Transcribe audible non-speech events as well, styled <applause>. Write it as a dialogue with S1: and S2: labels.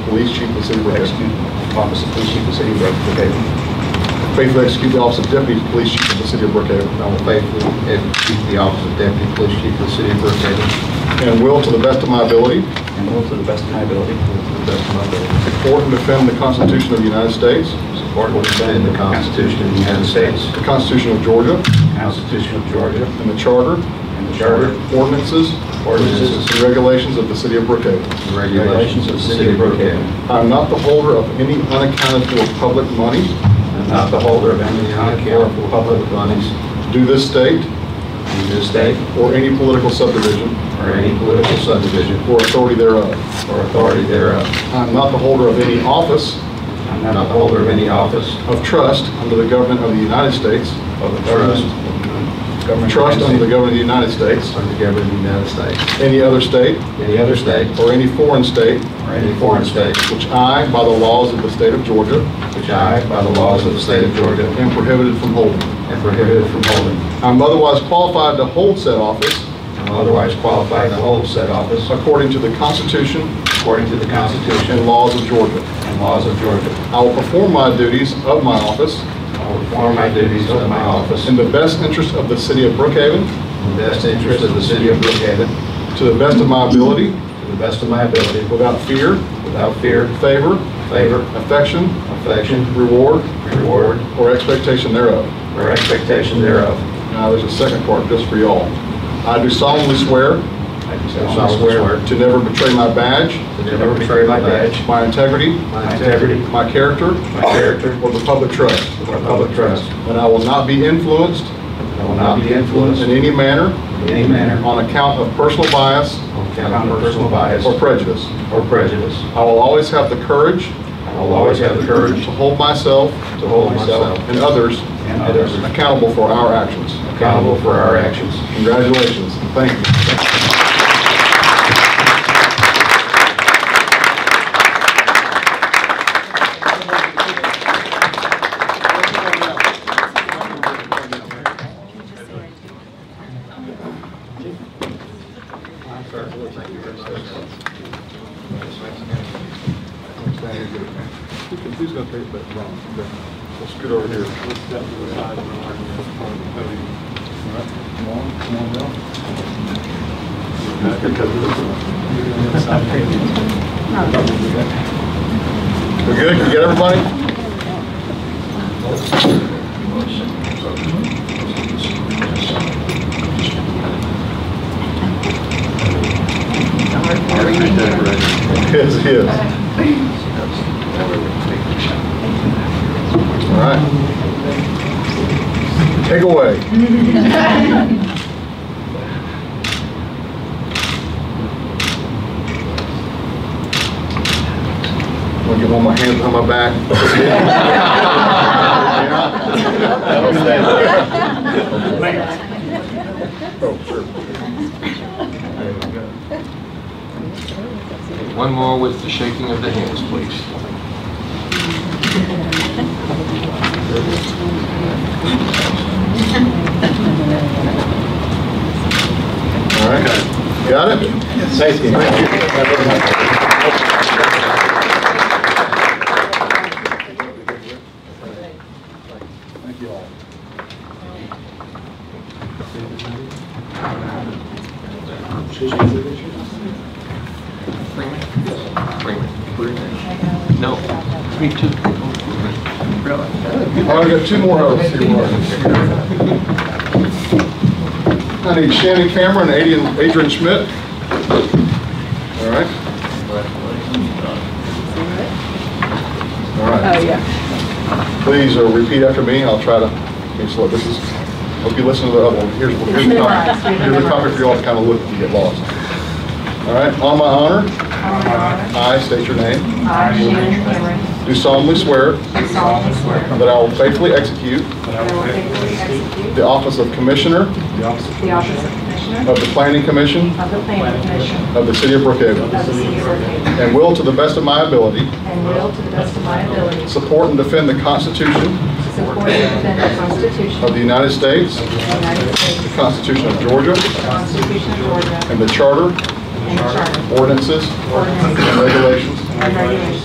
S1: Police Chief of the City will execute the office of Police Chief of the City of Brookhaven. Faithfully execute the office of Deputy Police Chief of the City of Brookhaven.
S2: I will faithfully execute the office of Deputy Police Chief of the City of Brookhaven
S1: And will, to the best of my ability,
S3: and will to the best of my ability
S2: to the best of my ability.
S1: support and defend the Constitution of the United States,
S2: Support and defend the Constitution of the United States,
S1: the Constitution of Georgia,
S2: the Constitution of Georgia,
S1: and the Charter,
S2: and the Charter,
S1: ordinances,
S2: Ordinances.
S1: and regulations of the City of Brookhaven.
S2: and regulations of the City of Brookhaven.
S1: I am not the holder of any unaccounted-for public money
S2: And not the holder of any unaccountable public monies
S1: due this state
S2: in this state
S1: or any political subdivision
S2: or any political subdivision
S1: or authority thereof.
S2: or authority thereof.
S1: I am not the holder of any office
S2: I'm not the holder of any office
S1: of trust under the government of the United States,
S2: of the trust. government-
S1: trust under the government of the United States,
S2: Under the government of the United States,
S1: any other state,
S2: any other state,
S1: or any foreign state,
S2: or any foreign state,
S1: which I, by the laws of the state of Georgia,
S2: which I, by the laws of the state of Georgia,
S1: am prohibited from holding.
S2: am prohibited from holding.
S1: I am otherwise qualified to hold said office
S2: I'm otherwise qualified to hold said office
S1: according to the Constitution
S2: according to the
S1: and
S2: Constitution
S1: laws of Georgia.
S2: and laws of Georgia.
S1: I will perform my duties of my office
S2: I will perform my duties of my office
S1: in the best interest of the city of Brookhaven,
S2: in the best interest of the city of Brookhaven,
S1: to the best of my ability,
S2: to the best of my ability,
S1: without fear,
S2: without fear,
S1: favor,
S2: favor,
S1: affection,
S2: affection,
S1: reward,
S2: reward,
S1: or expectation thereof.
S2: or expectation thereof.
S1: Now, there's a second part just for y'all. I do solemnly swear
S2: I do solemnly swear
S1: to never betray my badge,
S2: to never betray my badge,
S1: my integrity,
S2: my integrity,
S1: my character,
S2: my character,
S1: or the public trust,
S2: or public trust.
S1: and I will not be influenced
S2: I will not be influenced
S1: in
S2: in
S1: any manner
S2: any manner
S1: on account of personal bias
S2: on account of personal bias
S1: or prejudice.
S2: or prejudice.
S1: I will always have the courage
S2: I will always have the courage
S1: to hold myself
S2: to hold myself
S1: and others
S2: and others
S1: accountable for our actions.
S2: accountable for our actions.
S1: Congratulations. Thank you. Who's gonna take that wrong? We'll scoot over here. We're good? You got everybody? Yes, he is. All right. Take away. I'm gonna get one of my hands on my back.
S2: <laughs>
S1: Oh, sure.
S4: One more with the shaking of the hands, please.
S1: All right. Got it? Thank you. Thank you all.
S4: Bring it. No, me too.
S1: All right, we got two more hours here. Mark. I need Shannon Cameron, Adrian Adrian Schmidt. All right. All right.
S5: Oh, yeah.
S1: Please uh, repeat after me, I'll try to be slow. This is, hope you listen to the other one. Here's here's the topic. Here's the topic for you all to kind of look and get lost. All right, on my honor, I state your name,
S5: I, Shannon Cameron,
S1: do solemnly swear
S5: do solemnly swear
S1: that I will faithfully execute
S5: that I will faithfully execute
S1: the office of Commissioner
S5: the office of Commissioner
S1: of the Planning Commission
S5: of the Planning Commission
S1: of the City of Brookhaven,
S5: of the City of Brookhaven,
S1: and will, to the best of my ability,
S5: and will, to the best of my ability,
S1: support and defend the Constitution
S5: support and defend the Constitution
S1: of
S5: of
S1: the United States,
S5: the United States,
S1: the Constitution of Georgia,
S5: the Constitution of Georgia,
S1: and the Charter,
S5: and the Charter,
S1: ordinances,
S5: ordinances,
S1: and regulations
S5: and regulations